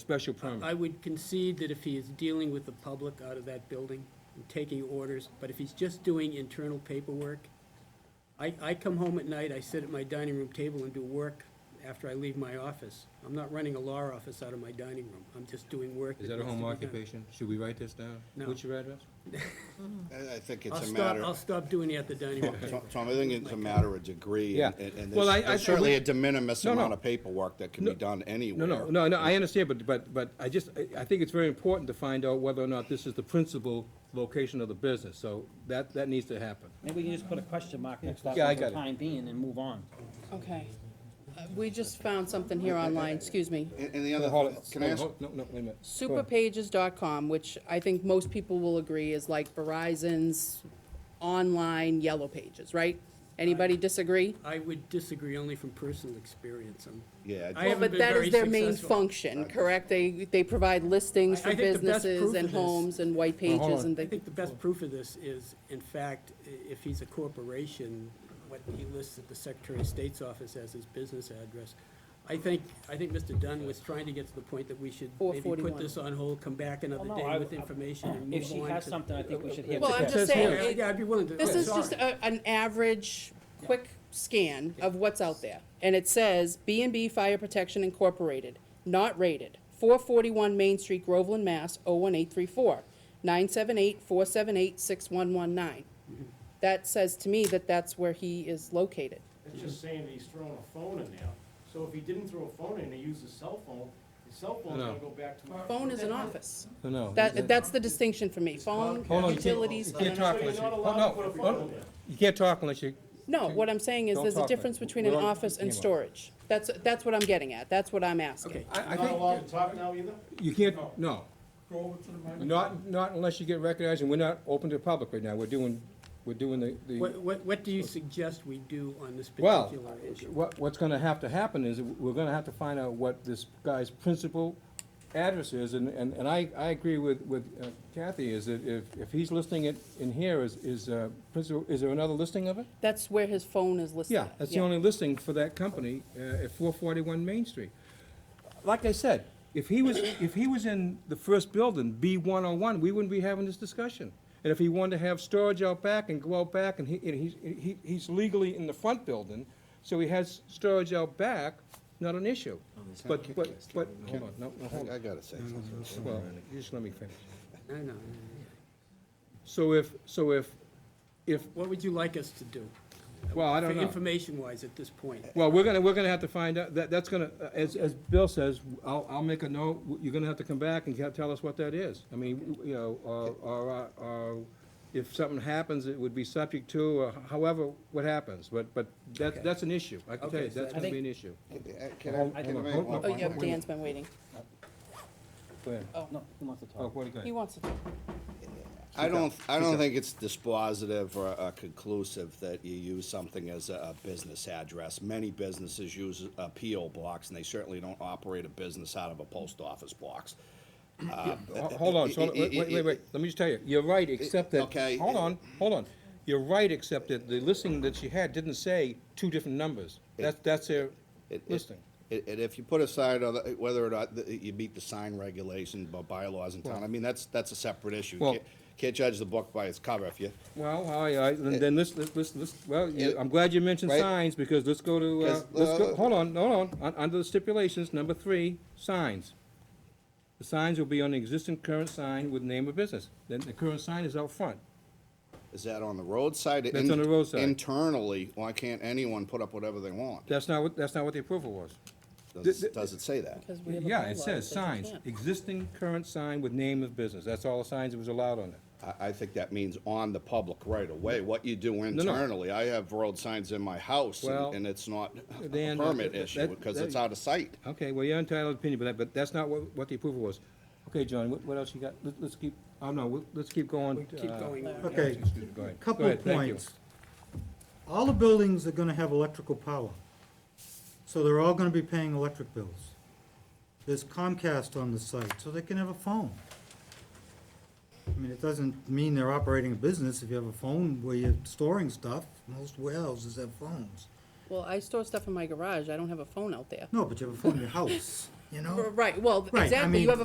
special permit. I would concede that if he is dealing with the public out of that building and taking orders, but if he's just doing internal paperwork, I, I come home at night, I sit at my dining room table and do work after I leave my office. I'm not running a law office out of my dining room. I'm just doing work. Is that a needs to home be done. occupation? Should we write this down? No. What's your address? I, I think I'll it's a stop, matter, I'll stop doing it at the dining room Tom, table. Tom, I think it's a matter of degree, Yeah. and, and- and Well, I- I- there's I there's certainly a would- de minimis No, no. amount of paperwork that can No. be done anywhere. No, no, no, no, I understand, but, but, but I just, I- I think it's very important to find out whether or not this is the principal location of the business, so that, that needs to happen. Maybe we can just put a question mark next to that Yeah, I one for got the it. time being and move on. Okay. Uh, We just found something here online, excuse me. And, and the other, Hold it, can I ask, hold- No, no, wait a minute. Go ahead. Superpages.com, which I think most people will agree is like Verizon's online yellow pages, right? Anybody disagree? I would disagree only from personal experience. I'm- yeah, I I- Well, haven't but been that very is their main successful. function, correct? They, they provide listings I- I for think the best proof businesses and of this- homes and white Well, hold pages on. and I the, think the best proof of this is, in fact, i- if he's a corporation, what he lists at the Secretary of State's office as his business address. I think, I think Mr. Dunn was trying to get to the point that we should maybe put 441. this on hold, come back another Well, no, day I- with information and move on. If she has to- something, I think we should hear. Well, from I'm her. Yeah, just saying, Yeah, I'd be willing to. this oh, is just sorry. a, an average, quick scan of what's out there. And it says B and B Fire Protection Incorporated, not rated, four forty-one Main Street, Groveland, Mass, 01834, 978-478-6119. Mm-hmm. That says to me that that's where he is located. It's just saying that he's throwing a phone in there. So if he didn't throw a phone in, he used his cell phone, his cell phone's No. gonna go back to. Phone is an office. No, No. That, that's the distinction for me. Phone, Hold on, you can't- utilities, You and can't an talk So unless you're you, not oh, allowed no, to put a oh, phone in there. you can't talk unless you, No, what I'm saying is Don't there's a talk like difference that. between an We're on office and camera. storage. That's, that's what I'm getting at. That's what I'm asking. Okay, I, I Not think, allowed to talk now either? you can't, no. Not, not unless you get recognized, and we're not open to the public right now, we're doing, we're doing the, the. What, what, what do you suggest we do on this Well, particular issue? what, what's gonna have to happen is, we're gonna have to find out what this guy's principal address is, and, and, and I, I agree with, with uh, Kathy, is that if, if he's listing it in here, is, is, uh, principal, is there another listing of it? That's where his phone is listed. Yeah, that's the only listing for that company, uh, at four forty-one Main Street. Like I said, if he was, if he was in the first building, B one oh one, we wouldn't be having this discussion. And if he wanted to have storage out back and go out back, and he, and he's, he, he's legally in the front building, so he has storage out back, not an issue. But, but, but, hold on, no, no, hold I on, gotta say something. well, you just let me finish. I know. So if, so if, if, What would you like us to do? well, I don't know. Information-wise at this point. Well, we're gonna, we're gonna have to find out, that, that's gonna, as, as Bill says, I'll, I'll make a note, you're gonna have to come back and tell- tell us what that is. I mean, you know, or, or, uh, or if something happens, it would be subject to, or however, what happens, but, but that, that's an issue, I can tell you, Okay, so- that's gonna be an issue. Can I, can I make one Oh, point? yeah, Dan's been waiting. Go ahead. No, he wants to Oh, talk. what do you He got? wants to. I don't, I don't think it's dispositive or uh, conclusive that you use something as a a business address. Many businesses use uh, PO blocks, and they certainly don't operate a business out of a post office box. Ho- Hold on, so, wait, wait, wait, wait, let me just tell you, you're right, except that, Okay. hold on, hold on. You're right, except that the listing that she had didn't say two different numbers, that's, that's their It- it- listing. And and if you put aside other- whether or not th- you meet the sign regulation, by bylaws in town, I mean, that's, that's a separate issue. Well- Can't- Can't judge the book by its cover if you, Well, all right, then, then let's, let's, let's- let's, well, you- It- I'm glad you mentioned right. signs, because let's go to, uh, 'Cause, let's go, uh, hold on, hold on, Un- under the stipulations, number three, signs. The signs will be on the existing current sign with name of business, then the current sign is out front. is that on the roadside? That's on the roadside. Internally, why can't anyone put up whatever they want? That's not what, that's not what the approval was. Does th- it- does it say that? Yeah, it says signs, existing current sign with name of business, that's all the signs that was allowed on it. I, I think that means on the public right away. what you do no. internally. I have road signs in my house, Well, and and it's not a Dan, permit that- issue, that- because it's that- out of sight. Okay, well, you're entitled to opinion, but that, but that's not what, what the approval was. Okay, John, what, what else you got? Let, let's keep, oh, no, we'll- let's keep going. Keep uh, going on. Okay, Go ahead. couple Go of ahead, thank you. points. All the buildings are gonna have electrical power, so they're all gonna be paying electric bills. There's Comcast on the site, so they can have a phone. I mean, it doesn't mean they're operating a business if you have a phone where you're storing stuff. Most warehouses have phones. Well, I store stuff in my garage. I don't have a phone out there. No, but you have a phone in your house. you know? Right, well, Right, I exactly, you mean- have a